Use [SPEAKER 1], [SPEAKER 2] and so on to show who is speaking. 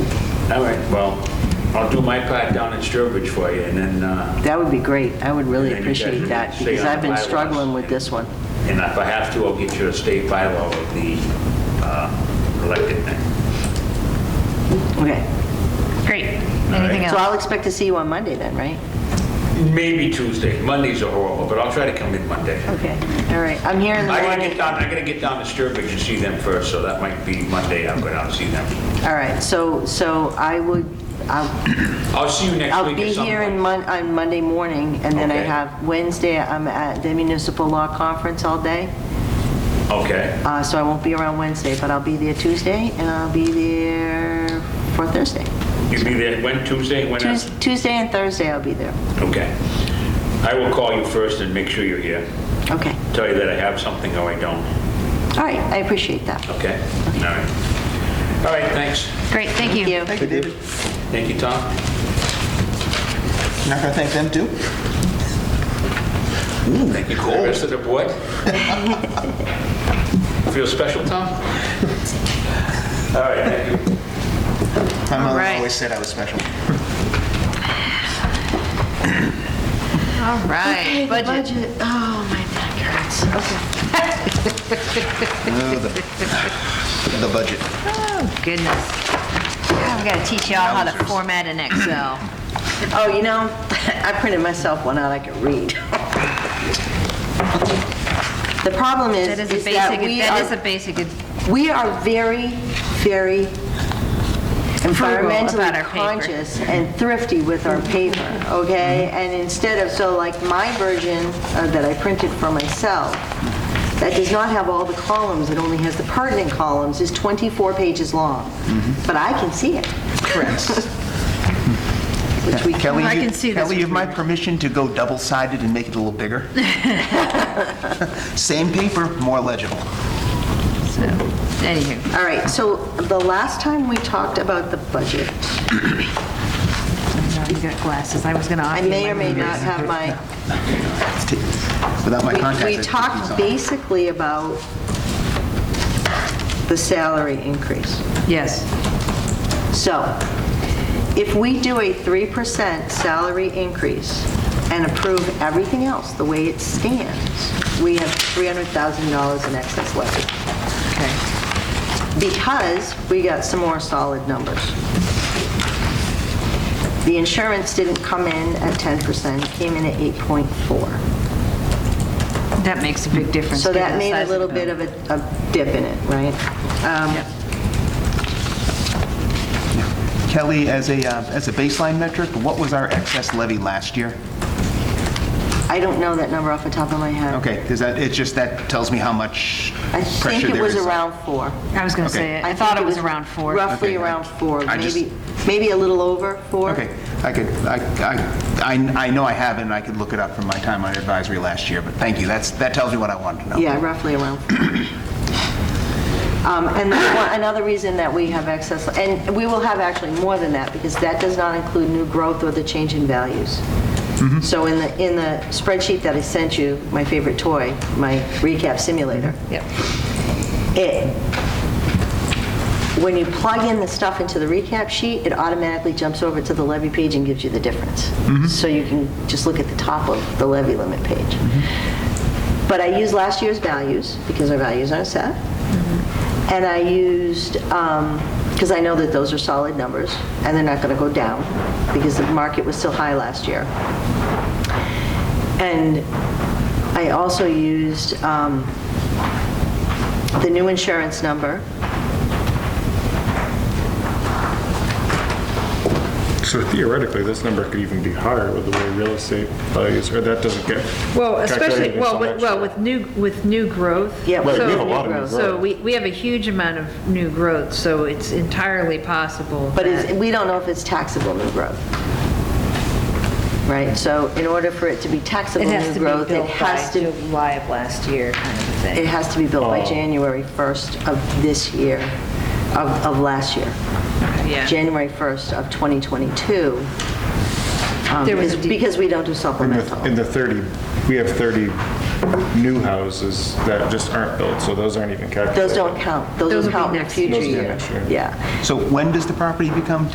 [SPEAKER 1] All right, well, I'll do my part down at Sturbridge for you, and then, uh,
[SPEAKER 2] That would be great. I would really
[SPEAKER 1] And then you guys
[SPEAKER 2] appreciate
[SPEAKER 1] would
[SPEAKER 2] that
[SPEAKER 1] stay
[SPEAKER 2] because
[SPEAKER 1] on the
[SPEAKER 2] I've been
[SPEAKER 1] bylaws.
[SPEAKER 2] struggling with this one.
[SPEAKER 1] and if I have to, I'll get you a state bylaw of the uh, elected thing.
[SPEAKER 2] Okay.
[SPEAKER 3] Great. Anything
[SPEAKER 2] So I'll
[SPEAKER 3] else?
[SPEAKER 2] expect to see you on Monday then, right?
[SPEAKER 1] Maybe Tuesday, Mondays are horrible, but I'll try to come in Monday.
[SPEAKER 2] Okay, all right. I'm here in the
[SPEAKER 1] I gotta
[SPEAKER 2] morning.
[SPEAKER 1] get down, I gotta get down to Sturbridge and see them first, so that might be Monday, I'll go down and see them.
[SPEAKER 2] All right, so, so I would, I'll,
[SPEAKER 1] I'll see you next
[SPEAKER 2] I'll
[SPEAKER 1] week
[SPEAKER 2] be
[SPEAKER 1] at some
[SPEAKER 2] here in
[SPEAKER 1] point.
[SPEAKER 2] Mon, on Monday morning and then I
[SPEAKER 1] Okay.
[SPEAKER 2] have Wednesday, I'm at the municipal law conference all day.
[SPEAKER 1] Okay,
[SPEAKER 2] Uh, so I won't be around Wednesday, but I'll be there Tuesday and I'll be there for Thursday.
[SPEAKER 1] you'll be there, when, Tuesday, when? else?
[SPEAKER 2] Tues- Tuesday and Thursday I'll be there.
[SPEAKER 1] Okay. I will call you first and make sure you're here.
[SPEAKER 2] Okay,
[SPEAKER 1] Tell you that I have something or I don't,
[SPEAKER 2] all right, I appreciate that.
[SPEAKER 1] okay? All right. All right, thanks.
[SPEAKER 3] Great, thank
[SPEAKER 2] Thank
[SPEAKER 3] you.
[SPEAKER 2] you.
[SPEAKER 4] Thank you, David.
[SPEAKER 1] Thank you, Tom.
[SPEAKER 4] Not gonna thank them too?
[SPEAKER 1] Thank you, Cole. Rest of the board. Feel special, Tom? All right, thank you.
[SPEAKER 4] My mother
[SPEAKER 3] right.
[SPEAKER 4] always said I was special.
[SPEAKER 3] All right, budget.
[SPEAKER 2] Oh, my neck hurts. Okay.
[SPEAKER 4] Uh, The budget.
[SPEAKER 3] Oh, goodness. I've got to teach y'all how to format an Excel.
[SPEAKER 2] Oh, you know, I printed myself one out I could read. The problem is,
[SPEAKER 3] That is a
[SPEAKER 2] is that
[SPEAKER 3] basic,
[SPEAKER 2] we
[SPEAKER 3] that is a
[SPEAKER 2] are,
[SPEAKER 3] basic,
[SPEAKER 2] we are very, very
[SPEAKER 3] about
[SPEAKER 2] environmentally
[SPEAKER 3] our paper.
[SPEAKER 2] conscious and thrifty with our paper, okay?
[SPEAKER 3] Mm-hmm.
[SPEAKER 2] And instead of, so like my version uh, that I printed for myself, that does not have all the columns, it only has the pertinent columns, is 24 pages long.
[SPEAKER 3] Mm-hmm.
[SPEAKER 2] But I can see it,
[SPEAKER 4] Correct.
[SPEAKER 2] which we can
[SPEAKER 4] Kelly,
[SPEAKER 3] I
[SPEAKER 4] you-
[SPEAKER 3] can see this
[SPEAKER 4] Kelly, you have my permission to go double-sided and make it a little bigger? Same paper, more legible.
[SPEAKER 3] so, anywho.
[SPEAKER 2] All right, so the last time we talked about the budget,
[SPEAKER 3] No, You got glasses, I was going to
[SPEAKER 2] I
[SPEAKER 3] offer you
[SPEAKER 2] may
[SPEAKER 3] my
[SPEAKER 2] or may not
[SPEAKER 3] readers.
[SPEAKER 2] have my,
[SPEAKER 4] Without my contacts.
[SPEAKER 2] we we
[SPEAKER 4] I took these
[SPEAKER 2] talked
[SPEAKER 4] off.
[SPEAKER 2] basically about the salary increase.
[SPEAKER 3] Yes,
[SPEAKER 2] So if we do a 3% salary increase and approve everything else the way it stands, we have $300,000 in excess levy
[SPEAKER 3] okay,
[SPEAKER 2] because we got some more solid numbers. The insurance didn't come in at 10%, came in at 8.4.
[SPEAKER 3] that makes a big difference.
[SPEAKER 2] So
[SPEAKER 3] given
[SPEAKER 2] that
[SPEAKER 3] the
[SPEAKER 2] made
[SPEAKER 3] size
[SPEAKER 2] a
[SPEAKER 3] of
[SPEAKER 2] little
[SPEAKER 3] the
[SPEAKER 2] bit
[SPEAKER 3] bill.
[SPEAKER 2] of a a dip in it, right? Um,
[SPEAKER 3] Yep.
[SPEAKER 4] Kelly, as a, uh, as a baseline metric, what was our excess levy last year?
[SPEAKER 2] I don't know that number off the top of my head.
[SPEAKER 4] Okay, because that, it's just, that tells me how much
[SPEAKER 2] I
[SPEAKER 4] pressure
[SPEAKER 2] think it
[SPEAKER 4] there is.
[SPEAKER 2] was around four.
[SPEAKER 3] I was going to
[SPEAKER 4] Okay.
[SPEAKER 3] say, it. I thought it was around four.
[SPEAKER 2] Roughly
[SPEAKER 4] Okay, I-
[SPEAKER 2] around four,
[SPEAKER 4] I just-
[SPEAKER 2] maybe, maybe a little over four.
[SPEAKER 4] Okay, I could, I, I, I I know I have it, and I could look it up from my time on advisory last year, but thank you, that's, that tells me what I wanted to know.
[SPEAKER 2] Yeah, roughly around. four. Um, And that's one- another reason that we have excess, and we will have actually more than that, because that does not include new growth or the change in values. So in the, in the spreadsheet that I sent you, my favorite toy, my recap simulator,
[SPEAKER 3] Yep.
[SPEAKER 2] it, when you plug in the stuff into the recap sheet, it automatically jumps over to the levy page and gives you the difference. So you can just look at the top of the levy limit page. But I used last year's values, because our values aren't set. And I used, because I know that those are solid numbers, and they're not going to go down, because the market was still high last year. And I also used um, the new insurance number,
[SPEAKER 5] So theoretically, this number could even be higher with the way real estate values, or that doesn't get.
[SPEAKER 6] Well, especially,
[SPEAKER 5] calculated
[SPEAKER 6] well,
[SPEAKER 5] until
[SPEAKER 6] with,
[SPEAKER 5] next
[SPEAKER 6] well,
[SPEAKER 5] year.
[SPEAKER 6] with new, with new growth.
[SPEAKER 2] Yeah, Right,
[SPEAKER 5] we have a
[SPEAKER 6] so-
[SPEAKER 5] lot of new
[SPEAKER 6] So
[SPEAKER 5] growth.
[SPEAKER 6] we, we have a huge amount of new growth, so it's entirely possible.
[SPEAKER 2] But
[SPEAKER 6] that-
[SPEAKER 2] it's, we don't know if it's taxable new growth. Right, so in order for it to be taxable
[SPEAKER 3] It
[SPEAKER 2] new
[SPEAKER 3] has to be
[SPEAKER 2] growth, it
[SPEAKER 3] built by
[SPEAKER 2] has to,
[SPEAKER 3] July of last year, kind of a thing.
[SPEAKER 2] it has to be built
[SPEAKER 5] Oh.
[SPEAKER 2] by January 1st of this year, of, of last year.
[SPEAKER 6] Yeah.
[SPEAKER 2] January 1st of 2022. um,
[SPEAKER 6] There was a
[SPEAKER 2] because-
[SPEAKER 6] de-
[SPEAKER 2] Because we don't do
[SPEAKER 5] In the- In
[SPEAKER 2] supplemental.
[SPEAKER 5] the 30, we have 30 new houses that just aren't built, so those aren't even calculated.
[SPEAKER 2] Those don't count,
[SPEAKER 6] Those
[SPEAKER 2] those will
[SPEAKER 6] will be
[SPEAKER 2] count in
[SPEAKER 6] next
[SPEAKER 2] future
[SPEAKER 5] Those will be
[SPEAKER 2] year.
[SPEAKER 5] next year.
[SPEAKER 2] Yeah.
[SPEAKER 4] So when does the property become